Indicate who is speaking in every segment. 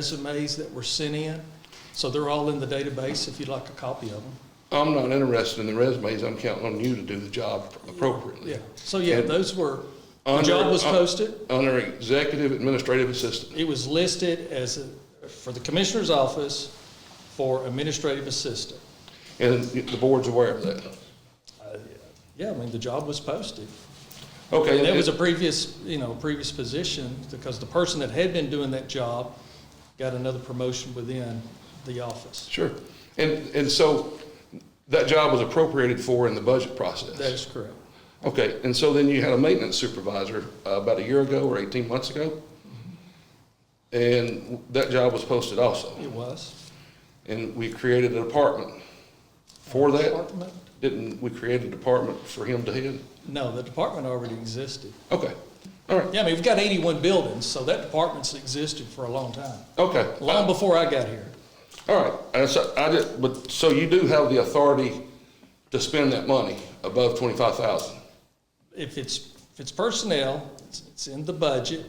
Speaker 1: resumes that were sent in. So they're all in the database if you'd like a copy of them.
Speaker 2: I'm not interested in the resumes, I'm counting on you to do the job appropriately.
Speaker 1: Yeah, so yeah,
Speaker 2: And
Speaker 1: those were, the job
Speaker 2: under- uh,
Speaker 1: was posted.
Speaker 2: Under executive administrative assistant,
Speaker 1: It was listed as, a- for the commissioner's office for administrative assistant.
Speaker 2: and the board's aware of that.
Speaker 1: Yeah, I mean, the job was posted.
Speaker 2: Okay,
Speaker 1: That was a
Speaker 2: and-
Speaker 1: previous, you know, previous position because the person that had been doing that job got another promotion within the office.
Speaker 2: sure. And, and so that job was appropriated for in the budget process?
Speaker 1: That is correct.
Speaker 2: Okay, and so then you had a maintenance supervisor uh, about a year ago or 18 months ago? And that job was posted also,
Speaker 1: It was.
Speaker 2: and we created a department for that?
Speaker 1: Department?
Speaker 2: Didn't we create a department for him to head?
Speaker 1: No, the department already existed.
Speaker 2: Okay, all right.
Speaker 1: Yeah, I mean, we've got 81 buildings, so that department's existed for a long time,
Speaker 2: Okay.
Speaker 1: long
Speaker 2: Uh,
Speaker 1: before I got here.
Speaker 2: All right, and so I did, but, so you do have the authority to spend that money above twenty-five thousand?
Speaker 1: If it's, if it's personnel, it's it's in the budget,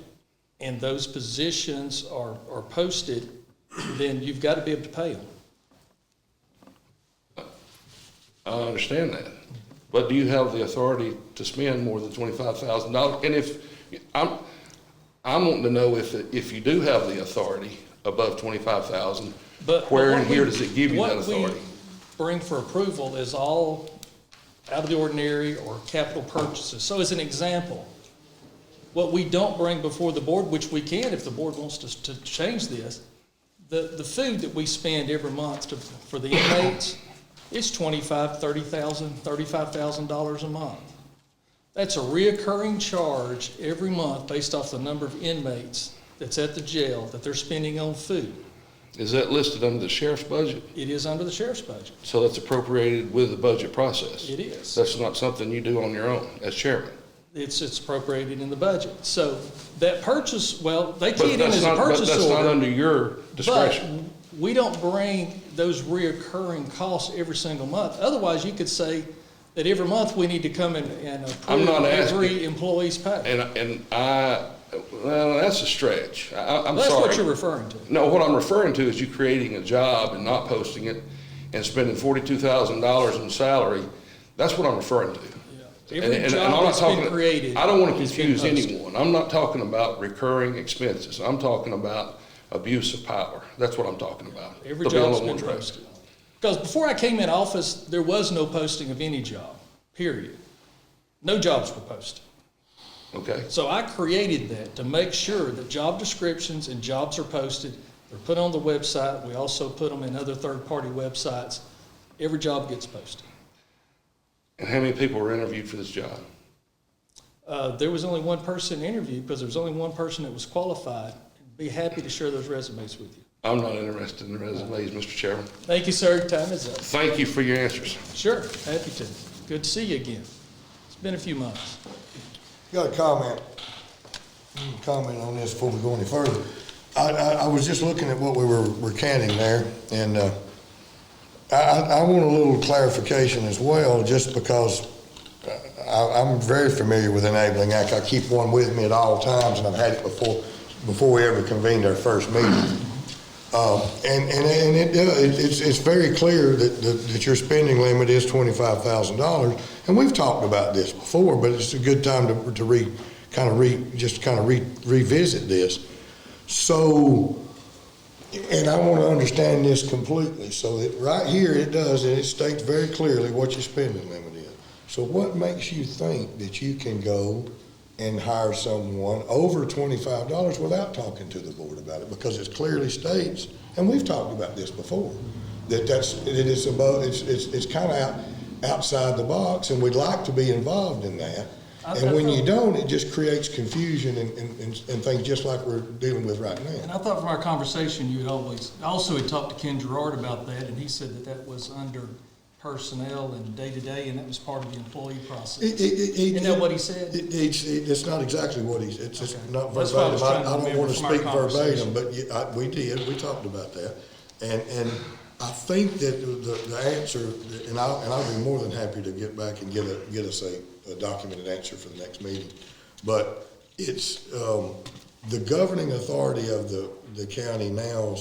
Speaker 1: and those positions are, are posted, then you've got to be able to pay them.
Speaker 2: I understand that, but do you have the authority to spend more than twenty-five thousand dollars? And if, I'm, I'm wanting to know if, if you do have the authority above twenty-five thousand,
Speaker 1: But but
Speaker 2: where
Speaker 1: what
Speaker 2: and
Speaker 1: we-
Speaker 2: here does it give you that
Speaker 1: What
Speaker 2: authority?
Speaker 1: we bring for approval is all out of the ordinary or capital purchases. So as an example, what we don't bring before the board, which we can if the board wants to, to change this, the, the food that we spend every month to, for the inmates is twenty-five, thirty thousand, thirty-five thousand dollars a month. That's a reoccurring charge every month based off the number of inmates that's at the jail that they're spending on food.
Speaker 2: Is that listed under the sheriff's budget?
Speaker 1: It is under the sheriff's budget.
Speaker 2: So that's appropriated with the budget process?
Speaker 1: It is.
Speaker 2: That's not something you do on your own as chairman?
Speaker 1: It's, it's appropriated in the budget. So that purchase, well, they
Speaker 2: But
Speaker 1: keyed in
Speaker 2: that's
Speaker 1: as a
Speaker 2: not- but
Speaker 1: purchase
Speaker 2: That's not
Speaker 1: order.
Speaker 2: under your discretion.
Speaker 1: But we don't bring those reoccurring costs every single month. Otherwise, you could say that every month we need to come and, and
Speaker 2: I'm
Speaker 1: approve
Speaker 2: not
Speaker 1: every
Speaker 2: asking-
Speaker 1: employee's pay.
Speaker 2: And, and I, well, that's a stretch. I- I, I'm
Speaker 1: That's what you're
Speaker 2: sorry.
Speaker 1: referring to.
Speaker 2: No, what I'm referring to is you creating a job and not posting it and spending forty-two thousand dollars in salary. That's what I'm referring to.
Speaker 1: Yeah.
Speaker 2: And-
Speaker 1: Every
Speaker 2: and- and
Speaker 1: job
Speaker 2: I'm not
Speaker 1: that's been
Speaker 2: talking-
Speaker 1: created.
Speaker 2: I don't want to
Speaker 1: has been
Speaker 2: confuse
Speaker 1: posted.
Speaker 2: anyone. I'm not talking about recurring expenses. I'm talking about abuse of power. That's what I'm talking about.
Speaker 1: Every
Speaker 2: The bill
Speaker 1: job's
Speaker 2: on
Speaker 1: been
Speaker 2: one track.
Speaker 1: posted. Because before I came in office, there was no posting of any job, period. No jobs were posted.
Speaker 2: Okay,
Speaker 1: So I created that to make sure that job descriptions and jobs are posted. They're put on the website. We also put them in other third-party websites. Every job gets posted.
Speaker 2: and how many people were interviewed for this job?
Speaker 1: Uh, there was only one person interviewed because there was only one person that was qualified. Be happy to share those resumes with you.
Speaker 2: I'm not interested in the resumes, Mr. Chairman.
Speaker 1: Thank you, sir. Time is up.
Speaker 2: Thank you for your answers.
Speaker 1: Sure, happy to. Good to see you again. It's been a few months.
Speaker 3: Got a comment, Mm, comment on this before we go any further. I, I, I was just looking at what we were recanting there, and, uh, I, I, I want a little clarification as well, just because uh, I, I'm very familiar with Enabling Act. I keep one with me at all times, and I've had it before, before we ever convened our first meeting. Um, And, and, and it, do- it- it's, it's very clear that, that that your spending limit is twenty-five thousand dollars. And we've talked about this before, but it's a good time to, to re, kind of re, just kind of re, revisit this. So, and I want to understand this completely, so that, right here, it does, and it states very clearly what your spending limit is. So what makes you think that you can go and hire someone over twenty-five dollars without talking to the board about it? Because it clearly states, and we've talked about this before, that that's, that it is above, it's, it's, it's kind of out, outside the box, and we'd like to be involved in that.
Speaker 1: I- I
Speaker 3: And when
Speaker 1: thought-
Speaker 3: you don't, it just creates confusion and, and, and and things just like we're dealing with right now.
Speaker 1: And I thought from our conversation, you had always, I also had talked to Ken Gerard about that, and he said that that was under personnel and day-to-day, and that was part of the employee
Speaker 3: It-
Speaker 1: process.
Speaker 3: it- it- it-
Speaker 1: Isn't that what he said?
Speaker 3: It- It's, it- it's not exactly what he's, it's just
Speaker 1: Okay.
Speaker 3: not
Speaker 1: That's what I
Speaker 3: verbatim.
Speaker 1: was
Speaker 3: I I
Speaker 1: trying to
Speaker 3: don't
Speaker 1: remember
Speaker 3: want to
Speaker 1: from our
Speaker 3: speak verbatim,
Speaker 1: conversation.
Speaker 3: but you- I- we did, we talked about that. And, and I think that the, the answer, and I'll, and I'll be more than happy to get back and get a, get us a a documented answer for the next meeting. But it's, um, the governing authority of the, the county now